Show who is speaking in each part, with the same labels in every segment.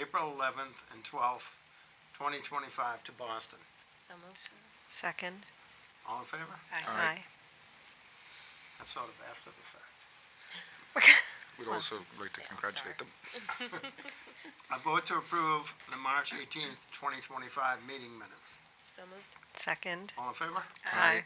Speaker 1: April eleventh and twelfth, twenty twenty-five to Boston.
Speaker 2: So moved.
Speaker 3: Second.
Speaker 1: All in favor?
Speaker 3: Aye.
Speaker 1: That's sort of after the fact.
Speaker 4: We'd also like to congratulate them.
Speaker 1: I vote to approve the March eighteenth, twenty twenty-five meeting minutes.
Speaker 2: So moved.
Speaker 3: Second.
Speaker 1: All in favor?
Speaker 3: Aye.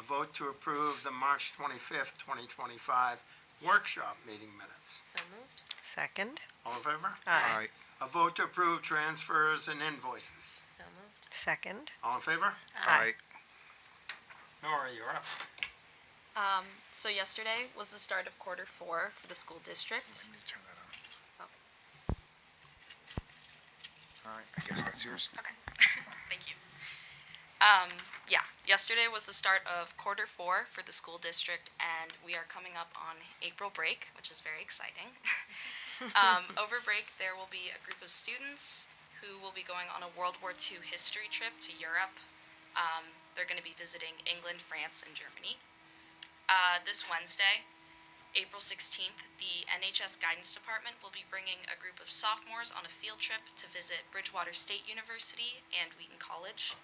Speaker 1: A vote to approve the March twenty-fifth, twenty twenty-five workshop meeting minutes.
Speaker 2: So moved.
Speaker 3: Second.
Speaker 1: All in favor?
Speaker 3: Aye.
Speaker 1: A vote to approve transfers and invoices.
Speaker 2: So moved.
Speaker 3: Second.
Speaker 1: All in favor?
Speaker 3: Aye.
Speaker 1: Nora, you're up.
Speaker 5: Um, so yesterday was the start of quarter four for the school district.
Speaker 4: Let me turn that
Speaker 3: Oh.
Speaker 4: on. All right, I guess that's yours.
Speaker 5: Okay, thank you. Um, yeah, yesterday was the start of quarter four for the school district, and we are coming up on April break, which is very exciting. um, over break, there will be a group of students who will be going on a World War II history trip to Europe. Um, they're going to be visiting England, France, and Germany. Uh, this Wednesday, April 16th, the NHS Guidance Department will be bringing a group of sophomores on a field trip to visit Bridgewater State University and Wheaton College.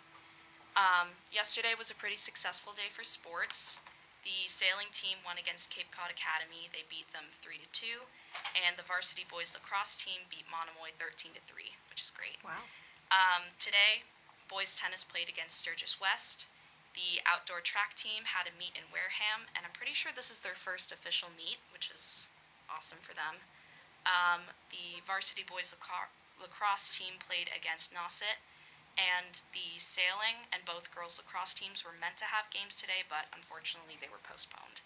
Speaker 5: Um, yesterday was a pretty successful day for sports. The sailing team won against Cape Cod Academy. They beat them 3 to 2, and the varsity boys lacrosse team beat Monomoy 13 to 3, which is great.
Speaker 3: Wow.
Speaker 5: Um, today, boys tennis played against Sturgis West. The outdoor track team had a meet in Wareham, and I'm pretty sure this is their first official meet, which is awesome for them. Um, the varsity boys lacro- lacrosse team played against Nauset, and the sailing and both girls lacrosse teams were meant to have games today, but unfortunately they were postponed.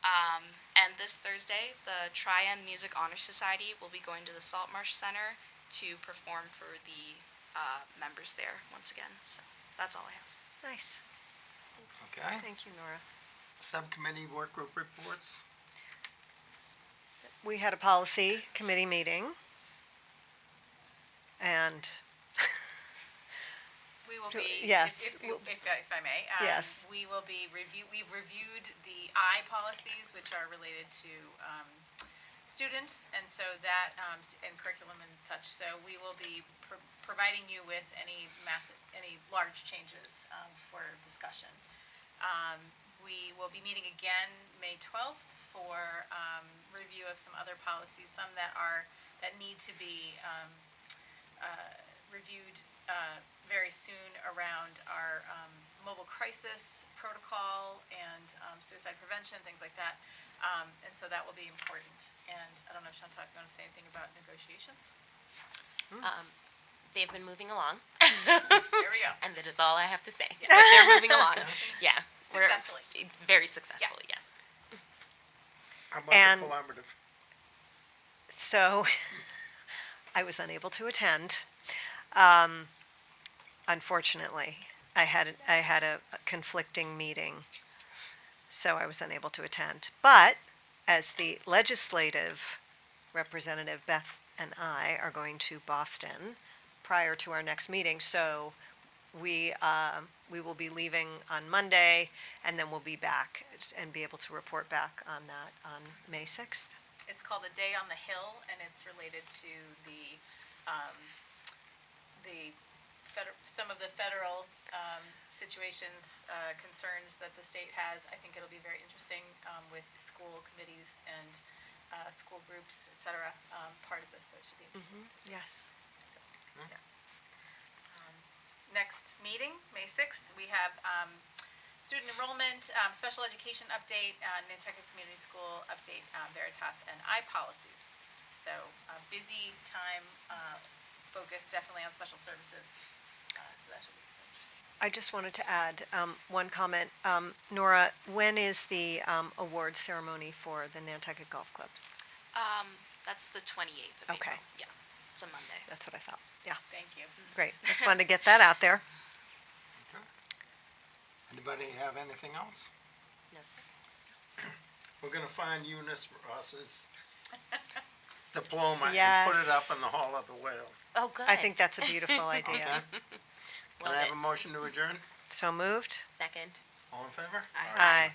Speaker 5: Um, and this Thursday, the Trian Music Honor Society will be going to the Saltmarsh Center to perform for the uh, members there once again. So that's all I have.
Speaker 3: Nice.
Speaker 1: Okay.
Speaker 3: Thank you, Nora.
Speaker 1: Subcommittee work group reports.
Speaker 3: We had a policy committee meeting. And
Speaker 6: We will
Speaker 3: Do-
Speaker 6: be,
Speaker 3: yes,
Speaker 6: if, if you-
Speaker 3: w-
Speaker 6: if, if I may. um,
Speaker 3: Yes.
Speaker 6: We will be review, we've reviewed the I policies, which are related to, um, students, and so that, um, s- and curriculum and such, so we will be pro- providing you with any massive, any large changes, um, for discussion. Um, we will be meeting again May twelfth for, um, review of some other policies, some that are, that need to be, um, reviewed uh, very soon around our um, mobile crisis protocol and um, suicide prevention, things like that. Um, And so that will be important. And I don't know, Chantal, if you want to say anything about negotiations?
Speaker 2: They've been moving along,
Speaker 6: Here we go.
Speaker 2: and that is all I have to say. They're moving along. Yeah. we're-
Speaker 6: Successfully.
Speaker 2: Very successfully, yes.
Speaker 1: How
Speaker 3: And-
Speaker 1: about the collaborative?
Speaker 3: so I was unable to attend. Um, unfortunately, I had, I had a conflicting meeting, so I was unable to attend. But as the legislative representative, Beth and I are going to Boston prior to our next meeting, so we, um, we will be leaving on Monday, and then we'll be back and be able to report back on that on May sixth.
Speaker 6: It's called the Day on the Hill, and it's related to the, um, the feder some of the federal um, situations, uh, concerns that the state has. I think it'll be very interesting um, with school committees and uh, school groups, et cetera, um, part of this, so it should be interesting to see.
Speaker 3: Yes.
Speaker 6: So, yeah. Um, Next meeting, May sixth, we have um, student enrollment, um, special education update, uh, Nantucket Community School update, uh, Veritas, and I policies. So a busy time, uh, focused definitely on special services. Uh, So that should be interesting.
Speaker 3: I just wanted to add um, one comment. Um, Nora, when is the um, award ceremony for the Nantucket Golf Club?
Speaker 5: Um, that's the 28th of
Speaker 3: Okay.
Speaker 5: April. Yeah, it's a Monday.
Speaker 3: That's what I thought. Yeah,
Speaker 6: Thank you.
Speaker 3: great. Just wanted to get that out there.
Speaker 1: Okay. Anybody have anything else?
Speaker 2: No, sir.
Speaker 1: We're gonna find Eunice Ross's diploma and put it up
Speaker 3: Yes.
Speaker 1: in the Hall of the Whale.
Speaker 2: Oh, good.
Speaker 3: I think that's a beautiful idea.
Speaker 1: Okay? Can
Speaker 2: Love
Speaker 1: I have
Speaker 2: it.
Speaker 1: a motion to adjourn?
Speaker 3: So moved?
Speaker 2: Second.
Speaker 1: All in favor?
Speaker 2: Aye.
Speaker 3: Aye.